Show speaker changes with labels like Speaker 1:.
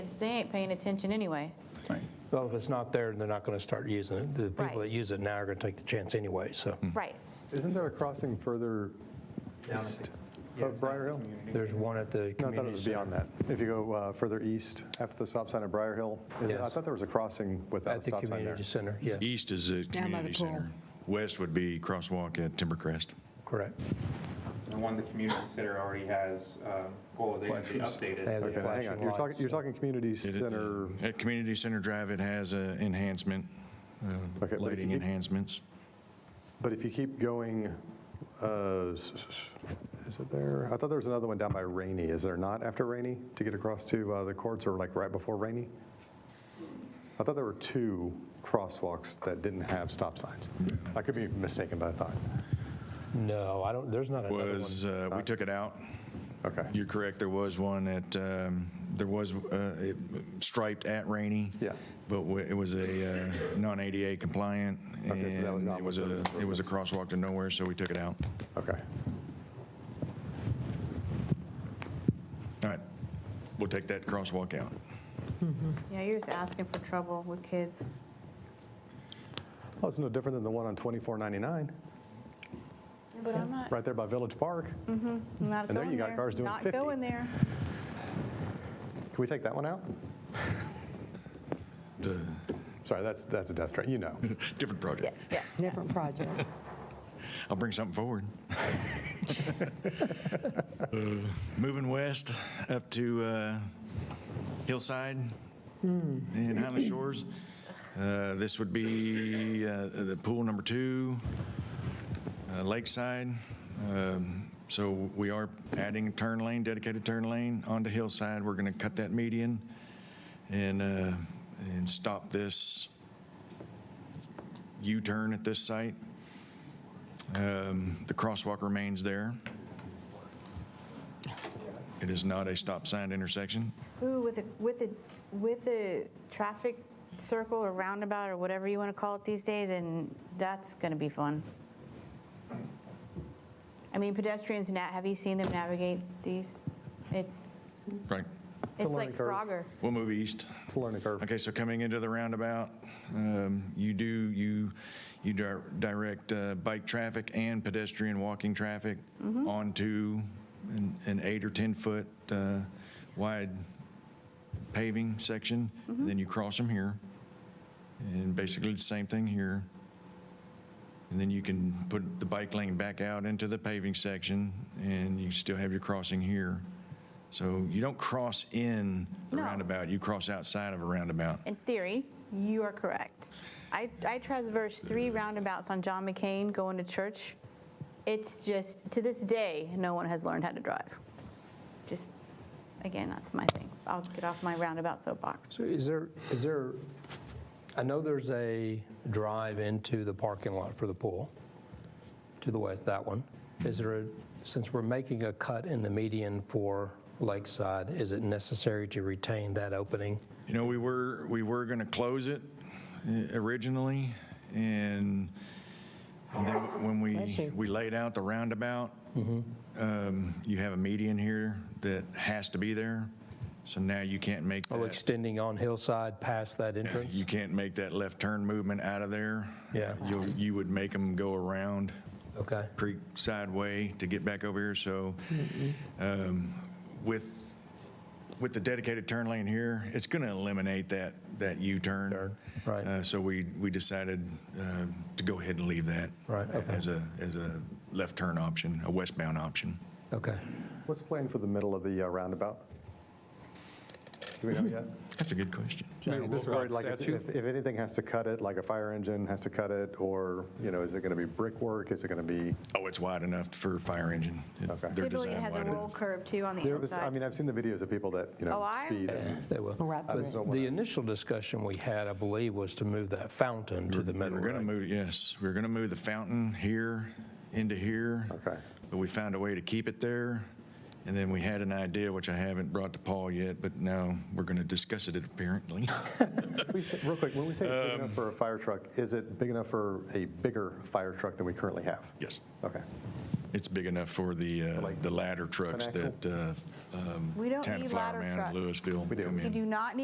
Speaker 1: they ain't paying attention anyway.
Speaker 2: Right.
Speaker 3: Well, if it's not there, they're not going to start using it. The
Speaker 1: Right.
Speaker 3: people that use it now are going to take the chance anyway, so.
Speaker 4: Mm.
Speaker 1: Right.
Speaker 5: Isn't there a crossing further east of Briar Hill?
Speaker 3: There's one at the
Speaker 5: No, I thought it
Speaker 3: community
Speaker 5: was
Speaker 3: center.
Speaker 5: beyond that. If you go uh, further east after the stop sign at Briar Hill, is it- I
Speaker 3: Yes.
Speaker 5: thought there was a crossing without a
Speaker 3: At the
Speaker 5: stop sign there.
Speaker 3: community center, yes,
Speaker 4: East is the
Speaker 6: Down by the
Speaker 4: community center. West would be crosswalk at Timbercrest.
Speaker 3: correct.
Speaker 7: The one the community center already has, uh, well, they have
Speaker 2: Flashers.
Speaker 7: updated.
Speaker 3: They have the
Speaker 5: Okay, hang on,
Speaker 3: flashing
Speaker 5: you're
Speaker 3: lights,
Speaker 5: talking, you're
Speaker 3: so-
Speaker 5: talking community
Speaker 4: It-
Speaker 5: center,
Speaker 4: At Community Center Drive, it has uh, enhancement, uh,
Speaker 5: but if you
Speaker 4: lighting
Speaker 5: keep-
Speaker 4: enhancements.
Speaker 5: but if you keep going, uh, s- s- is it there? I thought there was another one down by Rainey, is there not after Rainey to get across to uh, the courts or like right before Rainey? I thought there were two crosswalks that didn't have stop signs. I could be mistaken, but I thought,
Speaker 3: No, I don't, there's not another one.
Speaker 4: Was, uh, we took it out.
Speaker 5: okay.
Speaker 4: You're correct, there was one at, um, there was uh, it striped at Rainey.
Speaker 5: Yeah.
Speaker 4: But wa- it was a uh, non-ADA compliant, and
Speaker 5: Okay, so that was
Speaker 4: it
Speaker 5: not one
Speaker 4: was
Speaker 5: of
Speaker 4: a,
Speaker 5: those
Speaker 4: it was a crosswalk to nowhere, so we took it out.
Speaker 5: Okay.
Speaker 4: All right, we'll take that crosswalk out.
Speaker 1: Yeah, you're just asking for trouble with kids.
Speaker 5: Well, it's no different than the one on 2499,
Speaker 1: But I'm not,
Speaker 5: right there by Village Park.
Speaker 1: Mm.
Speaker 5: Can
Speaker 1: I'm not
Speaker 5: And there
Speaker 1: going
Speaker 5: you got
Speaker 1: there.
Speaker 5: cars doing 50.
Speaker 1: Not going there.
Speaker 5: we take that one out?
Speaker 4: The-
Speaker 5: Sorry, that's, that's a death threat, you know.
Speaker 4: Different project.
Speaker 1: Yeah.
Speaker 6: Different project.
Speaker 4: I'll bring something forward. Uh, Moving west up to uh, Hillside and Highland Shores. Uh, This would be uh, the pool number two, uh, Lakeside. Um, So we are adding a turn lane, dedicated turn lane onto Hillside. We're going to cut that median and, uh, and stop this U-turn at this site. Um, The crosswalk remains there. It is not a stop sign intersection.
Speaker 1: Ooh, with a, with a, with a traffic circle or roundabout or whatever you want to call it these days, and that's going to be fun. I mean, pedestrians, na- have you seen them navigate these? It's,
Speaker 4: Right.
Speaker 1: it's
Speaker 5: learning
Speaker 1: like
Speaker 5: curve.
Speaker 1: Frogger.
Speaker 4: We'll move east.
Speaker 5: It's a learning curve.
Speaker 4: Okay, so coming into the roundabout, um, you do, you, you dir- direct uh, bike traffic and pedestrian walking traffic onto an an eight or 10-foot wide paving section, then you cross them here. And basically the same thing here. And then you can put the bike lane back out into the paving section, and you still have your crossing here. So you don't cross in the
Speaker 1: No.
Speaker 4: roundabout, you cross outside of a roundabout.
Speaker 1: In theory, you are correct. I, I traversed three roundabouts on John McCain going to church. It's just, to this day, no one has learned how to drive. Just, again, that's my thing. I'll get off my roundabout soapbox.
Speaker 3: So is there, is there, I know there's a drive into the parking lot for the pool, to the west, that one. Is there, a since we're making a cut in the median for Lakeside, is it necessary to retain that opening?
Speaker 4: You know, we were, we were going to close it eh, originally, and and then when
Speaker 6: Bless
Speaker 4: we,
Speaker 6: you. Mm-hmm.
Speaker 4: we laid out the roundabout, um, you have a median here that has to be there, so now you can't make
Speaker 3: Or
Speaker 4: that.
Speaker 3: extending on Hillside past that Oh, entrance?
Speaker 4: You can't make that left turn movement out of there.
Speaker 3: Yeah.
Speaker 4: You, you would make them go around
Speaker 3: Okay.
Speaker 4: creek sideway to get back over here, so um, with, with the dedicated turn lane here, it's going to eliminate that, that U-turn.
Speaker 3: right.
Speaker 4: Uh, So we, we decided uh, to go ahead and leave that.
Speaker 3: Right, okay.
Speaker 4: As a, as a left turn option, a westbound option.
Speaker 3: Okay.
Speaker 5: What's planned for the middle of the uh, roundabout? Do we know yet?
Speaker 4: That's a good question.
Speaker 5: I'm just worried, like, if, if if anything has to cut it, like a fire engine has to cut it, or, you know, is it going to be brickwork? Is it going to be,
Speaker 4: Oh, it's wide enough for fire engine. It-
Speaker 5: Okay.
Speaker 4: they're
Speaker 1: Typically, it
Speaker 4: designed
Speaker 1: has a
Speaker 4: wide
Speaker 1: roll
Speaker 4: enough.
Speaker 1: curve too on the
Speaker 5: There was- I
Speaker 1: outside.
Speaker 5: mean, I've seen the videos of people that, you
Speaker 1: Oh,
Speaker 5: know,
Speaker 1: I-
Speaker 5: speed. and-
Speaker 3: They will.
Speaker 6: Right
Speaker 5: I
Speaker 6: through
Speaker 5: just
Speaker 6: it.
Speaker 5: don't
Speaker 3: The
Speaker 5: wanna-
Speaker 3: initial discussion we had, I believe, was to move that fountain to the middle.
Speaker 4: We're going to
Speaker 3: right?
Speaker 4: move, yes, we're going to move the fountain here into here.
Speaker 5: Okay.
Speaker 4: But we found a way to keep it there. And then we had an idea, which I haven't brought to Paul yet, but now we're going to discuss it apparently.
Speaker 5: We say- Real quick, when we say it's big enough for a fire truck, is it big enough for a bigger fire truck than we currently have?
Speaker 4: Yes.
Speaker 5: Okay.
Speaker 4: It's big enough for the, uh,
Speaker 5: Like
Speaker 4: the ladder trucks
Speaker 5: an axle?
Speaker 4: that uh, um,
Speaker 1: We don't
Speaker 4: Town of
Speaker 1: need ladder
Speaker 4: Flower Mound,
Speaker 1: trucks.
Speaker 4: Louisville
Speaker 5: We do.
Speaker 4: come
Speaker 1: You
Speaker 4: in.
Speaker 1: do not need